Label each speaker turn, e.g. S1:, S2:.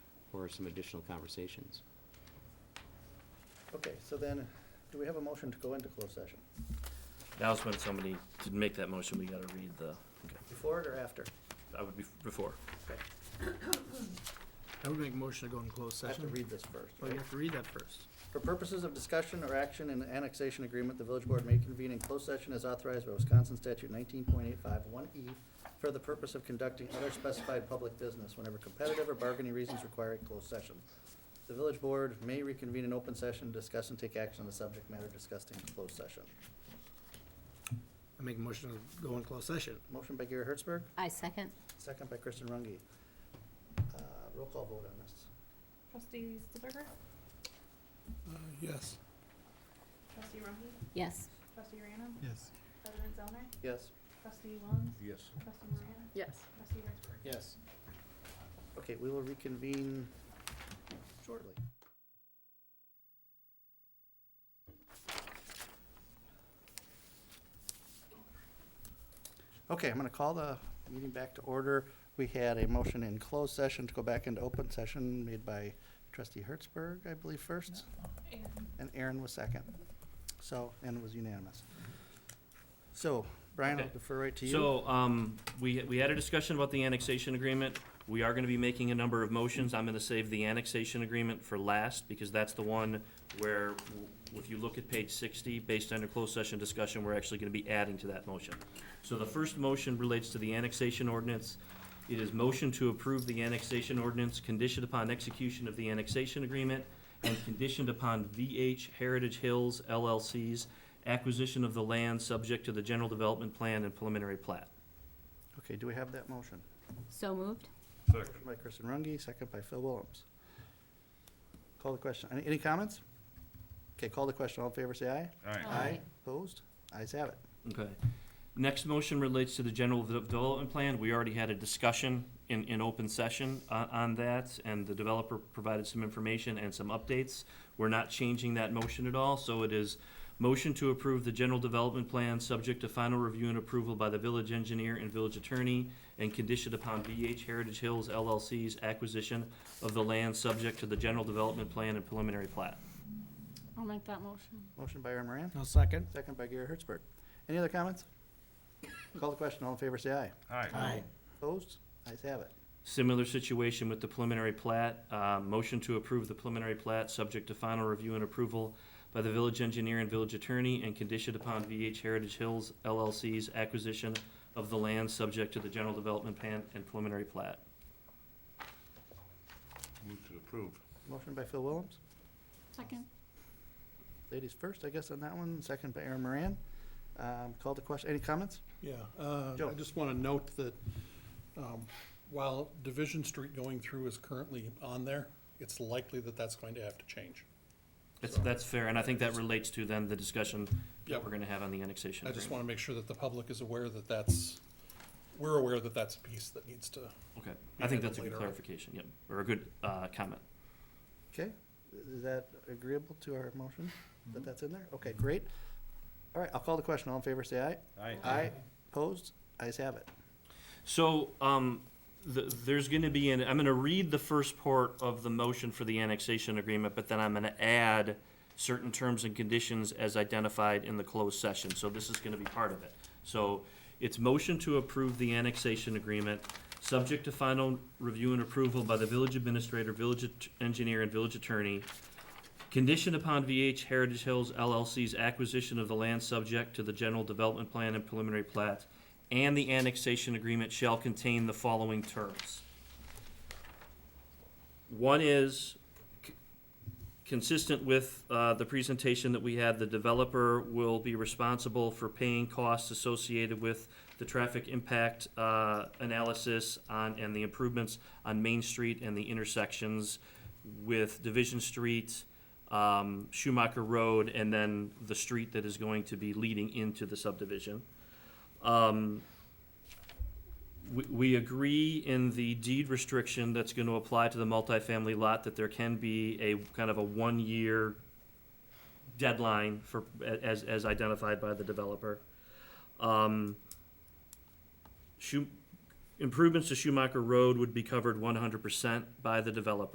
S1: or some additional conversations.
S2: Okay, so then, do we have a motion to go into closed session?
S3: Now's when somebody, to make that motion, we gotta read the,
S2: Before it or after?
S3: I would be, before.
S4: I would make a motion to go in closed
S2: I have to
S4: session.
S2: read this first.
S4: Well, you have to read that first.
S2: For purposes of discussion or action in the annexation agreement, the village board may convene in closed session as authorized by Wisconsin statute nineteen point eight five one E for the purpose of conducting other specified public business whenever competitive or bargaining reasons require a closed session. The village board may reconvene in open session, discuss and take action on the subject matter discussed in closed session.
S4: I make a motion to go in closed session.
S2: Motion by Gary Hertzberg,
S5: I second.
S2: second by Kristen Runge. Uh, roll call vote on this.
S6: Trustee Stilberger?
S4: Yes.
S6: Trustee Rohi?
S5: Yes.
S6: Trustee Random?
S4: Yes.
S6: President Zellner?
S2: Yes?
S6: Trustee Lunds.
S7: Yes.
S6: Trustee Moran?
S5: Yes.
S6: Trustee Hertzberg?
S2: Yes. Okay, we will reconvene shortly. Okay, I'm gonna call the meeting back to order. We had a motion in closed session to go back into open session made by trustee Hertzberg, I believe, first, and Aaron was second. So, and it was unanimous. So, Brian, I'll
S3: Okay.
S2: defer right to you.
S3: So, um, we, we had a discussion about the annexation agreement. We are gonna be making a number of motions. I'm gonna save the annexation agreement for last, because that's the one where, w- if you look at page sixty, based on your closed session discussion, we're actually gonna be adding to that motion. So the first motion relates to the annexation ordinance. It is motion to approve the annexation ordinance conditioned upon execution of the annexation agreement and conditioned upon VH Heritage Hills LLC's acquisition of the land subject to the general development plan and preliminary plat.
S2: Okay, do we have that motion?
S5: So moved?
S2: Motion by Kristen Runge, second by Phil Williams. Call the question. Any, any comments? Okay, call the question. All in favor, say aye.
S7: All right.
S5: Aye.
S2: Opposed? Ayes have it.
S3: Okay. Next motion relates to the general de- development plan. We already had a discussion in, in open session on, on that, and the developer provided some information and some updates. We're not changing that motion at all, so it is motion to approve the general development plan, subject to final review and approval by the village engineer and village attorney, and conditioned upon VH Heritage Hills LLC's acquisition of the land, subject to the general development plan and preliminary plat.
S5: I'll make that motion.
S2: Motion by Aaron Moran,
S4: No second.
S2: second by Gary Hertzberg. Any other comments? Call the question. All in favor, say aye.
S7: All right.
S2: Opposed? Ayes have it.
S3: Similar situation with the preliminary plat. Uh, Motion to approve the preliminary plat, subject to final review and approval by the village engineer and village attorney, and conditioned upon VH Heritage Hills LLC's acquisition of the land, subject to the general development plan and preliminary plat.
S7: Move to approve.
S2: Motion by Phil Williams.
S5: Second?
S2: Ladies first, I guess, on that one. Second by Aaron Moran. Um, call the question. Any comments?
S8: Yeah, uh,
S2: Joe.
S8: I just want to note that um, while Division Street going through is currently on there, it's likely that that's going to have to change.
S3: That's, that's fair, and I think that relates to then the discussion that
S8: Yep.
S3: we're gonna have on the annexation
S8: I just
S3: agreement.
S8: want to make sure that the public is aware that that's, we're aware that that's a piece that needs to,
S3: Okay, I think that's a
S8: Later
S3: good
S8: on.
S3: clarification, yep, or a good uh, comment.
S2: Okay, is that agreeable to our motion, that that's in there? Okay, great. All right, I'll call the question, all in favor, say aye.
S7: All right.
S2: Aye, opposed, ayes have it.
S3: So, um, th- there's gonna be, an I'm gonna read the first part of the motion for the annexation agreement, but then I'm gonna add certain terms and conditions as identified in the closed session, so this is gonna be part of it. So, it's motion to approve the annexation agreement, subject to final review and approval by the village administrator, village at- engineer, and village attorney, Conditioned upon VH Heritage Hills LLC's acquisition of the land subject to the general development plan and preliminary plat, and the annexation agreement shall contain the following terms. One is c- consistent with uh, the presentation that we had, the developer will be responsible for paying costs associated with the traffic impact uh, analysis on, and the improvements on Main Street and the intersections with Division Street, um, Schumacher Road, and then the street that is going to be leading into the subdivision. Um, we, we agree in the deed restriction that's gonna apply to the multifamily lot that there can be a kind of a one-year deadline for, as, as identified by the developer. Um, Schu- improvements to Schumacher Road would be covered one hundred percent by the developer.